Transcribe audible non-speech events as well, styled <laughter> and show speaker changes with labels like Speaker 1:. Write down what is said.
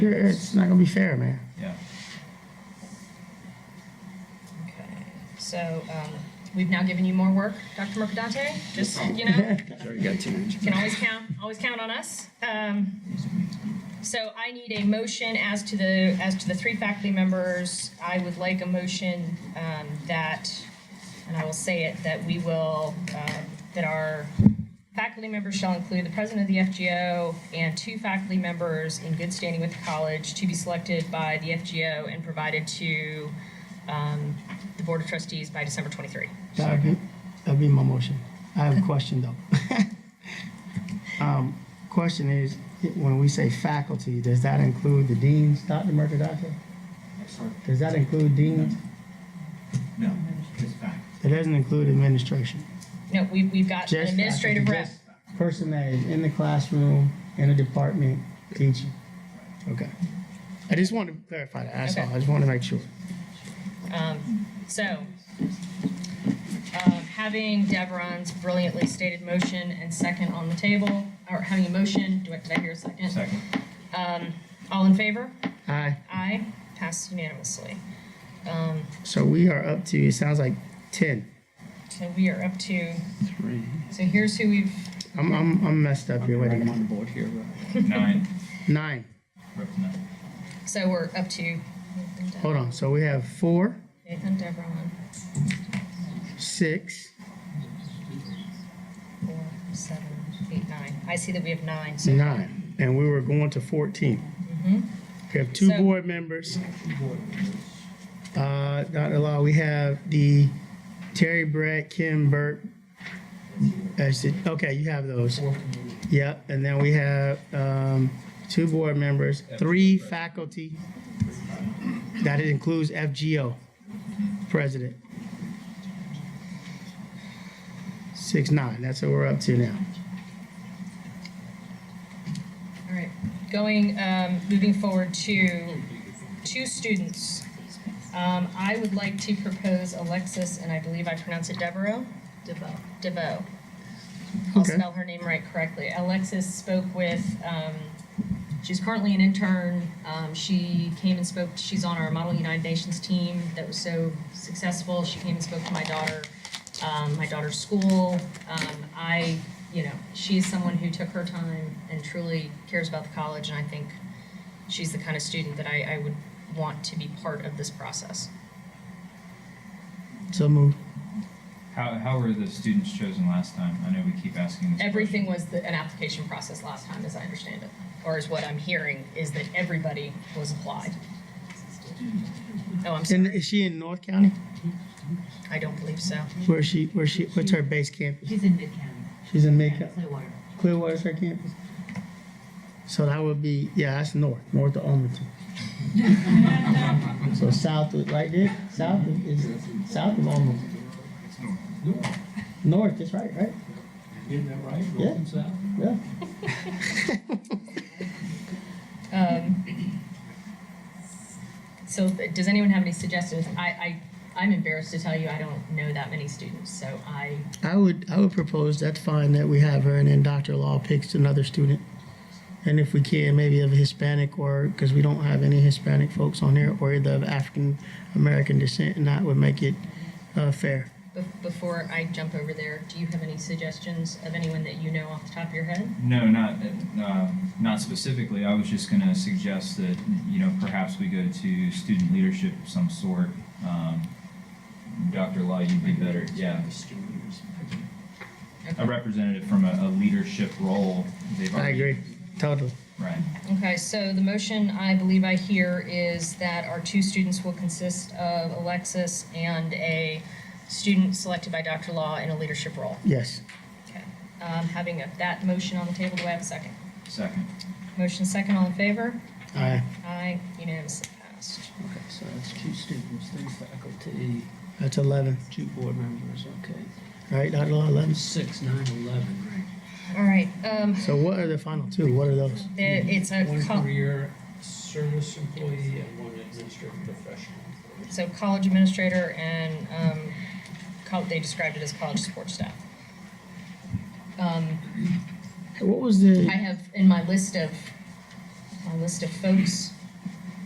Speaker 1: It's not gonna be fair, man.
Speaker 2: Yeah.
Speaker 3: Okay, so, um, we've now given you more work, Dr. Mercadante, just, you know,
Speaker 2: <laughs> Sorry, you got two.
Speaker 3: you can always count, always count on us. Um, so I need a motion as to the, as to the three faculty members. I would like a motion, um, that, and I will say it, that we will, um, that our faculty members shall include the president of the FGO and two faculty members in good standing with the college to be selected by the FGO and provided to, um, the Board of Trustees by December twenty-three.
Speaker 1: That'd be, that'd be my motion. I have a question though. <laughs> Um, Question is, when we say faculty, does that include the deans, Dr. Mercadante? Does that include deans?
Speaker 2: No, it's fact.
Speaker 1: It doesn't include administration.
Speaker 3: No, we, we've got an
Speaker 1: Just
Speaker 3: administrative
Speaker 1: faculty,
Speaker 3: rep.
Speaker 1: just Person that is in the classroom, in a department, teaching. Okay. I just wanted to clarify that, that's all.
Speaker 3: Okay.
Speaker 1: I just wanted to make sure.
Speaker 3: Um, so, um, having Devron's brilliantly stated motion and second on the table, or having a motion, do I, did I hear a second?
Speaker 2: Second.
Speaker 3: Um, all in favor?
Speaker 1: Aye.
Speaker 3: Aye, passed unanimously. Um,
Speaker 1: So we are up to, it sounds like ten.
Speaker 3: so we are up to,
Speaker 4: Three.
Speaker 3: so here's who we've,
Speaker 1: I'm, I'm, I'm messed up here, wait a
Speaker 4: I'm
Speaker 1: minute.
Speaker 4: on the board here.
Speaker 2: Nine.
Speaker 1: Nine.
Speaker 2: We're up to nine.
Speaker 3: so we're up to
Speaker 1: Hold on, so we have four,
Speaker 3: Nathan Devron,
Speaker 1: six,
Speaker 3: four, seven, eight, nine. I see that we have nine, so.
Speaker 1: nine, and we were going to fourteen. We have two
Speaker 3: So-
Speaker 1: board members. Uh, Dr. Law, we have the Terry Brett, Kim Burke. That's it. Okay, you have those. Yep, and then we have, um, two board members, three faculty. That includes FGO, president. Six, nine, that's what we're up to now.
Speaker 3: All right, going, um, moving forward to two students. Um, I would like to propose Alexis, and I believe I pronounce it Devereaux? DeVoe. DeVoe. I'll
Speaker 1: Okay.
Speaker 3: spell her name right correctly. Alexis spoke with, um, she's currently an intern. Um, she came and spoke, she's on our Model United Nations team that was so successful. She came and spoke to my daughter, um, my daughter's school. Um, I, you know, she's someone who took her time and truly cares about the college, and I think she's the kind of student that I, I would want to be part of this process.
Speaker 1: So move.
Speaker 2: How, how were the students chosen last time? I know we keep asking this.
Speaker 3: Everything was the, an application process last time, as I understand it, or is what I'm hearing, is that everybody was applied. Oh, I'm
Speaker 1: And
Speaker 3: sorry,
Speaker 1: is she in North County?
Speaker 3: I don't believe so.
Speaker 1: Where's she, where's she, what's her base campus?
Speaker 5: She's in Mid-County,
Speaker 1: She's in Midco-
Speaker 5: Clearwater.
Speaker 1: Clearwater's her campus? So that would be, yeah, that's north, north of <laughs> Almaty. So south, of- right there, south of- is, south of Almaty. North, that's right, right?
Speaker 4: Isn't that right?
Speaker 1: Yeah.
Speaker 4: North and south?
Speaker 1: Yeah.
Speaker 3: Um, So th- does anyone have any suggestions? I, I, I'm embarrassed to tell you, I don't know that many students, so I,
Speaker 1: I would, I would propose that's fine that we have her and then Dr. Law picks another student. And if we can, maybe of Hispanic or, because we don't have any Hispanic folks on here or either of African American descent and that would make it, uh, fair.
Speaker 3: bef- before I jump over there, do you have any suggestions of anyone that you know off the top of your head?
Speaker 2: No, not, uh, not specifically. I was just gonna suggest that, you know, perhaps we go to student leadership of some sort. Um, Dr. Law, you'd be better, yeah. A representative from a, a leadership role. They've
Speaker 1: I
Speaker 2: already-
Speaker 1: agree, totally.
Speaker 2: Right.
Speaker 3: Okay, so the motion I believe I hear is that our two students will consist of Alexis and a student selected by Dr. Law in a leadership role.
Speaker 1: Yes.
Speaker 3: Okay. Um, having a- that motion on the table, do I have a second?
Speaker 2: Second.
Speaker 3: Motion second, all in favor?
Speaker 1: Aye.
Speaker 3: Aye, unanimously passed.
Speaker 4: Okay, so that's two students, three faculty,
Speaker 1: That's 11.
Speaker 4: two board members, okay.
Speaker 1: Right, Dr. Law, 11.
Speaker 4: Six, nine, eleven, right?
Speaker 3: All right, um,
Speaker 1: So what are the final two? What are those?
Speaker 3: the- it's a,
Speaker 4: One
Speaker 3: col-
Speaker 4: career service employee and one administrative professional.
Speaker 3: so college administrator and, um, col- they described it as college support staff. Um,
Speaker 1: What was the?
Speaker 3: I have in my list of, a list of folks